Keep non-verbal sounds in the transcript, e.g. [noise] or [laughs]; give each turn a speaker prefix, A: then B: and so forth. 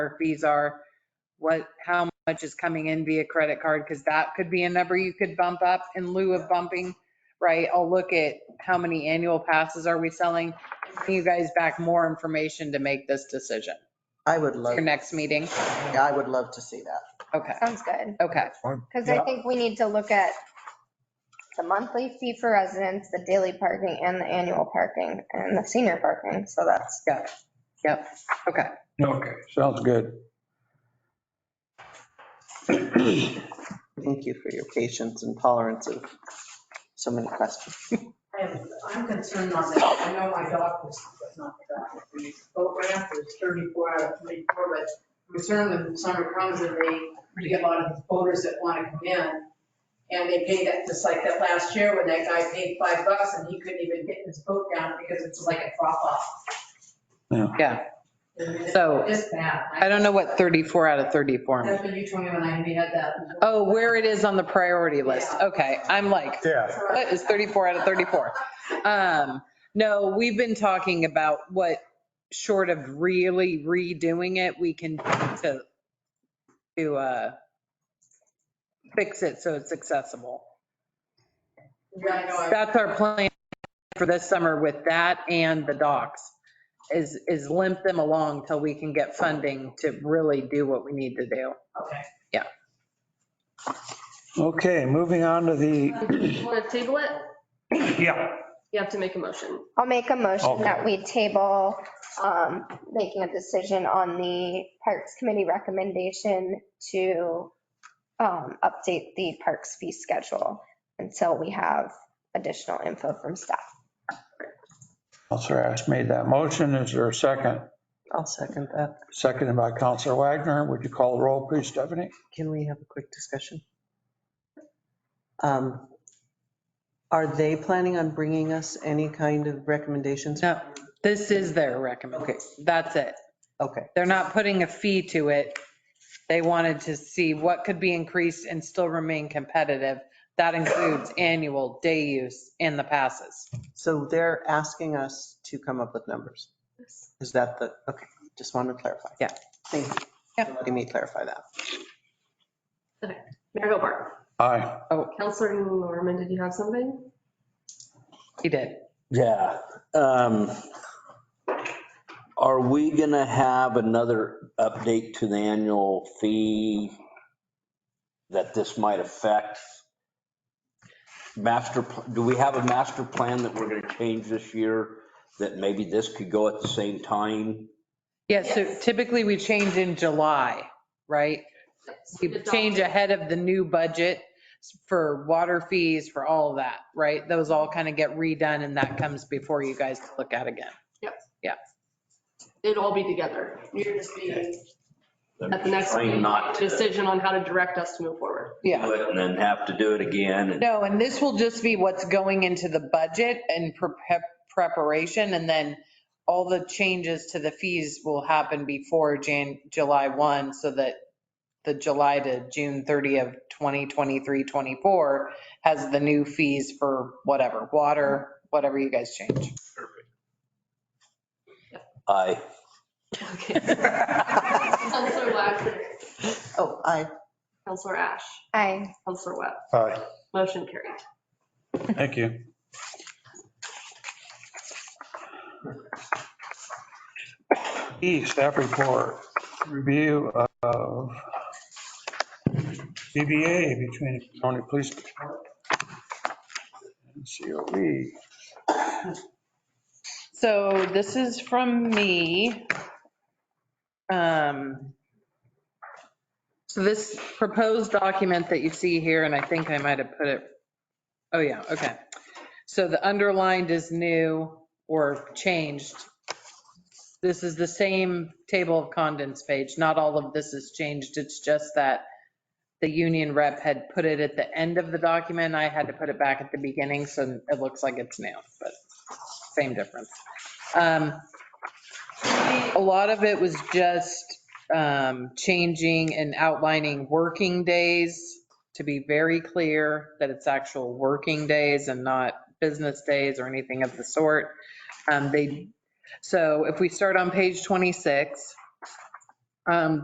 A: our fees are, what, how much is coming in via credit card, because that could be a number you could bump up in lieu of bumping, right? I'll look at how many annual passes are we selling, Bring you guys back more information to make this decision.
B: I would love,
A: Your next meeting,
B: I would love to see that.
A: okay,
C: Sounds good.
A: okay,
C: Because I
D: Yeah.
C: think we need to look at the monthly fee for residents, the daily parking and the annual parking and the senior parking. So that's,
A: got it, yep, okay.
D: Okay, sounds good.
B: Thank you for your patience and tolerance of so many questions.
E: I'm I'm concerned on that. I know my dog was, not the dog, the boat ramp was 34 out of 34, but I'm concerned when summer comes and they, we get a lot of boaters that want to come in. And they pay that, just like that last year when that guy paid five bucks and he couldn't even get his boat down because it's like a drop off.
A: Yeah. So-
E: It's bad.
A: I don't know what 34 out of 34 means.
E: That's what you told me when I we had that.
A: Oh, where it is on the priority list. Okay, I'm like,
D: Yeah,
A: what is 34 out of 34? Um, no, we've been talking about what, short of really redoing it, we can do to, to, uh, fix it so it's accessible.
E: Yeah, I know. I-
A: That's our plan for this summer with that and the docks, is, is limp them along till we can get funding to really do what we need to do.
E: Okay.
D: okay, moving on to the,
F: You want to table
G: [laughs]
F: it?
D: yeah,
F: You have to make a motion.
C: I'll make a motion
D: Okay.
C: that we table um, making a decision on the Parks Committee recommendation to um, update the parks fee schedule until we have additional info from staff.
D: Counselor Ash made that motion. Is there a second?
B: I'll second that.
D: Seconded by Counselor Wagner. Would you call the roll, please, Stephanie?
B: Can we have a quick discussion? Um, Are they planning on bringing us any kind of recommendations?
A: No, this is their recommendation. That's it.
B: Okay,
A: They're not putting a fee to it. They wanted to see what could be increased and still remain competitive. That includes annual, day use, and the passes.
B: so they're asking us to come up with numbers. Is that the, okay, just wanted to clarify.
A: Yeah.
B: Thank you.
A: Yeah.
B: for letting me clarify that.
F: Mayor Gilmore,
D: Aye.
F: Counselor Norman, did you have something?
A: He did.
G: Yeah. um, Are we gonna have another update to the annual fee that this might affect? Master, pl- do we have a master plan that we're gonna change this year? That maybe this could go at the same time?
A: Yeah, so
F: Yes.
A: typically we change in July, right? We change ahead of the new budget for water fees, for all of that, right? Those all kind of get redone and that comes before you guys to look at again.
F: It'd all be together
E: You're just being,
F: at the next
G: Trying
F: meeting,
G: Not to do
F: decision on how to direct us to move forward.
A: Yeah.
G: it and then have to do it again. and-
A: No, and this will just be what's going into the budget and prep- preparation, and then all the changes to the fees will happen before Jan, July 1, so that the July to June 30 of 2023, 24 has the new fees for whatever, water, whatever you guys change.
G: Aye. [laughs]
F: Okay. [laughs] Counselor Wagner,
B: Oh, I,
F: Counselor Ash,
C: Aye.
F: Counselor Webb,
D: Aye.
F: motion carried.
D: Thank you. E, staff report, review of CBA between the County Police Department and E. COE.
A: So this is from me. Um, So this proposed document that you see here, and I think I might have put it, oh yeah, okay. So the underlined is new or changed. This is the same table of contents page. Not all of this is changed. It's just that the union rep had put it at the end of the document. I had to put it back at the beginning, so it looks like it's new, but same difference. Um, A lot of it was just um, changing and outlining working days to be very clear that it's actual working days and not business days or anything of the sort. Um, They, so if we start on page 26, Um,